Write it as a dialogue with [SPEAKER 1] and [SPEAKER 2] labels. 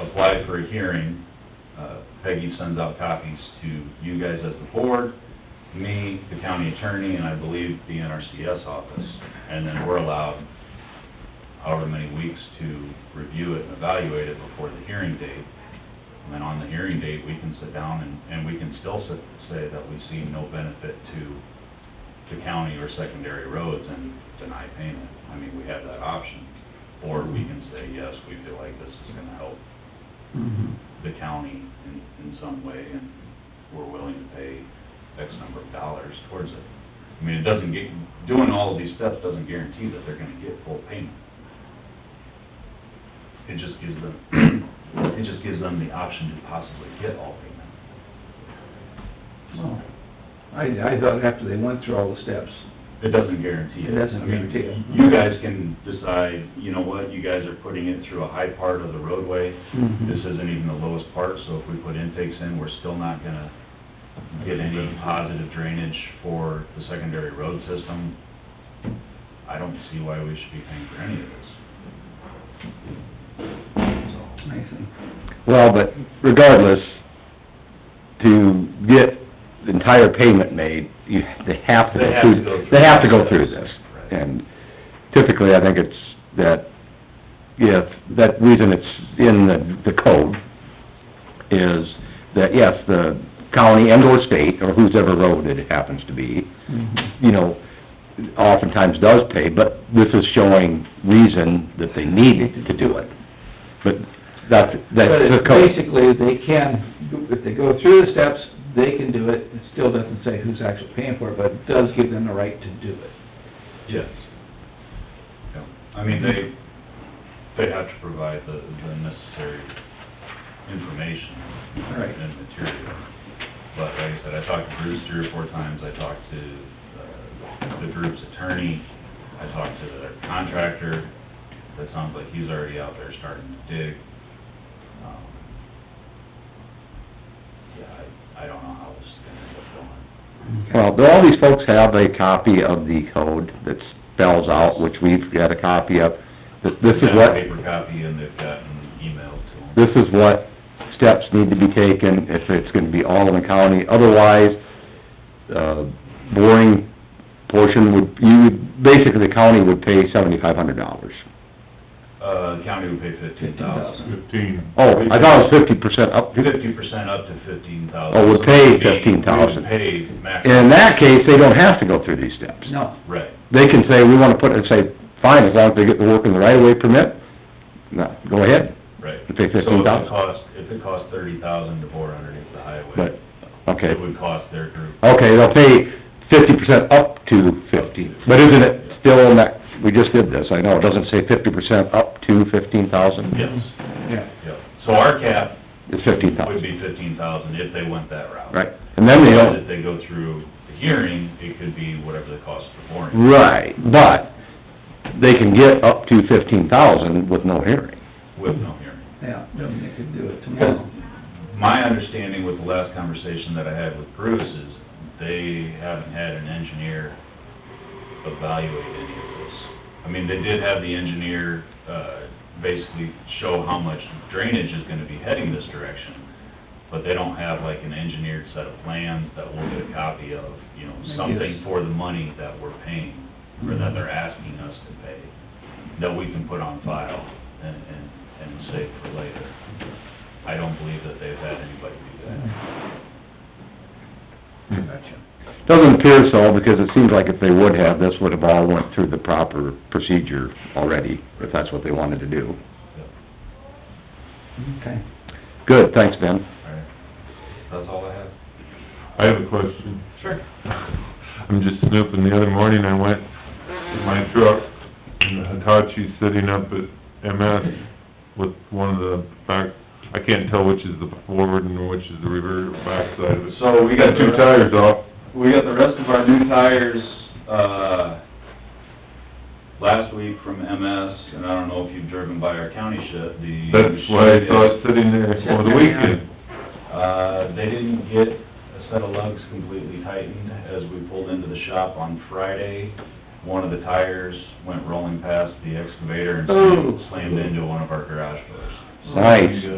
[SPEAKER 1] apply for a hearing, uh, Peggy sends out copies to you guys as the board, me, the county attorney, and I believe the NRCS office. And then we're allowed however many weeks to review it and evaluate it before the hearing date. And then on the hearing date, we can sit down and, and we can still sa- say that we see no benefit to the county or secondary roads and deny payment. I mean, we have that option. Or we can say, yes, we feel like this is gonna help
[SPEAKER 2] Mhm.
[SPEAKER 1] the county in, in some way, and we're willing to pay X number of dollars towards it. I mean, it doesn't get, doing all of these steps doesn't guarantee that they're gonna get full payment. It just gives them, it just gives them the option to possibly get all payment.
[SPEAKER 2] Well, Oh. I, I thought after they went through all the steps,
[SPEAKER 1] It doesn't guarantee it.
[SPEAKER 2] It doesn't
[SPEAKER 1] I mean,
[SPEAKER 2] guarantee it.
[SPEAKER 1] You guys can decide, you know what, you guys are putting it through a high part of the roadway.
[SPEAKER 3] Mm-hmm.
[SPEAKER 2] Mhm.
[SPEAKER 1] This isn't even the lowest part, so if we put intakes in, we're still not gonna get any positive drainage for the secondary road system. I don't see why we should be paying for any of this. So,
[SPEAKER 2] I think.
[SPEAKER 3] Well, but regardless, to get the entire payment made, you, they have to
[SPEAKER 1] They
[SPEAKER 3] go
[SPEAKER 1] have to go
[SPEAKER 3] through,
[SPEAKER 1] through
[SPEAKER 3] they have to go
[SPEAKER 1] this.
[SPEAKER 3] through this.
[SPEAKER 1] Right.
[SPEAKER 3] And typically, I think it's that, yes, that reason it's in the, the code is that, yes, the county and or state, or whose ever road it happens to be, you know, oftentimes does pay, but this is showing reason that they need to do it. But that's,
[SPEAKER 2] But
[SPEAKER 3] that's the
[SPEAKER 2] it's
[SPEAKER 3] code.
[SPEAKER 2] basically, they can, if they go through the steps, they can do it, it still doesn't say who's actually paying for it, but it does give them the right to do it.
[SPEAKER 1] Yes. Yeah, I mean, they, they have to provide the, the necessary information.
[SPEAKER 2] Right.
[SPEAKER 1] And material. But like I said, I talked to Bruce three or four times, I talked to, uh, the group's attorney, I talked to their contractor, that sounds like he's already out there starting to dig. Um, Yeah, I, I don't know how this is gonna end up going.
[SPEAKER 3] Well, do all these folks have a copy of the code that spells out, which we've got a copy of? that This is
[SPEAKER 1] They've got
[SPEAKER 3] what,
[SPEAKER 1] a paper copy and they've gotten emailed to them.
[SPEAKER 3] this is what steps need to be taken if it's gonna be all in the county. Otherwise, uh, boring portion would, you, would- basically the county would pay seventy-five hundred dollars.
[SPEAKER 1] Uh, the county would pay fifteen thousand.
[SPEAKER 4] Fifteen.
[SPEAKER 3] Oh, I thought it was fifty percent up.
[SPEAKER 1] Fifty percent up to fifteen thousand.
[SPEAKER 3] Oh, would pay 15,000.
[SPEAKER 1] Pay max.
[SPEAKER 3] In that case, they don't have to go through these steps.
[SPEAKER 2] No,
[SPEAKER 1] Right,
[SPEAKER 3] They can say, we wanna put, it," and say, fine, as long as they get the work in the right-of-way permit, no, go ahead.
[SPEAKER 1] right.
[SPEAKER 3] You pay
[SPEAKER 1] So if it
[SPEAKER 3] 15,000?
[SPEAKER 1] cost- If it costs thirty thousand to bore underneath the highway.
[SPEAKER 3] But, okay.
[SPEAKER 1] It would cost their group.
[SPEAKER 3] Okay, they'll pay fifty percent up to fifty, but isn't it still in that, we just did this, I know, it doesn't say fifty percent up to fifteen thousand?
[SPEAKER 1] Yes,
[SPEAKER 2] yeah.
[SPEAKER 1] yep. So our cap
[SPEAKER 3] It's fifteen
[SPEAKER 1] would
[SPEAKER 3] thousand,
[SPEAKER 1] be fifteen thousand if they went that route.
[SPEAKER 3] right, and then they
[SPEAKER 1] But
[SPEAKER 3] don't,
[SPEAKER 1] if they go through the hearing, it could be whatever the cost of the boring.
[SPEAKER 3] Mm. right, but they can get up to fifteen thousand with no hearing.
[SPEAKER 1] With no hearing.
[SPEAKER 2] Yeah, they could do it
[SPEAKER 1] Because
[SPEAKER 2] tomorrow.
[SPEAKER 1] my understanding with the last conversation that I had with Bruce is they haven't had an engineer evaluate any of this. I mean, they did have the engineer, uh, basically show how much drainage is gonna be heading this direction, but they don't have like an engineered set of plans that we'll get a copy of, you know,
[SPEAKER 2] Maybe
[SPEAKER 1] something
[SPEAKER 2] it's-
[SPEAKER 1] for the money that we're paying, or that they're asking us to pay, that we can put on file and, and, and save for later. I don't believe that they've had anybody do that.
[SPEAKER 2] Gotcha.
[SPEAKER 3] Doesn't appear so, because it seems like if they would have, this would have all went through the proper procedure already, if that's what they wanted to do.
[SPEAKER 2] Okay.
[SPEAKER 3] Good, thanks, Ben.
[SPEAKER 1] All right. That's all I have.
[SPEAKER 4] I have a question.
[SPEAKER 1] Sure.
[SPEAKER 4] I'm just snooping, the other morning I went in my truck, and the Hitachi's sitting up at MS with one of the back, I can't tell which is the forward and which is the reverse backside of it.
[SPEAKER 1] So we got
[SPEAKER 4] Got two tires off,
[SPEAKER 1] We got the rest of our new tires, uh, last week from MS, and I don't know if you've driven by our county shed, the...
[SPEAKER 4] that's why I saw it sitting there for the weekend.
[SPEAKER 1] Uh, they didn't get a set of lugs completely tightened. As we pulled into the shop on Friday, one of the tires went rolling past the excavator and
[SPEAKER 2] Oh.
[SPEAKER 1] slammed into one of our garage doors. So-
[SPEAKER 3] Nice.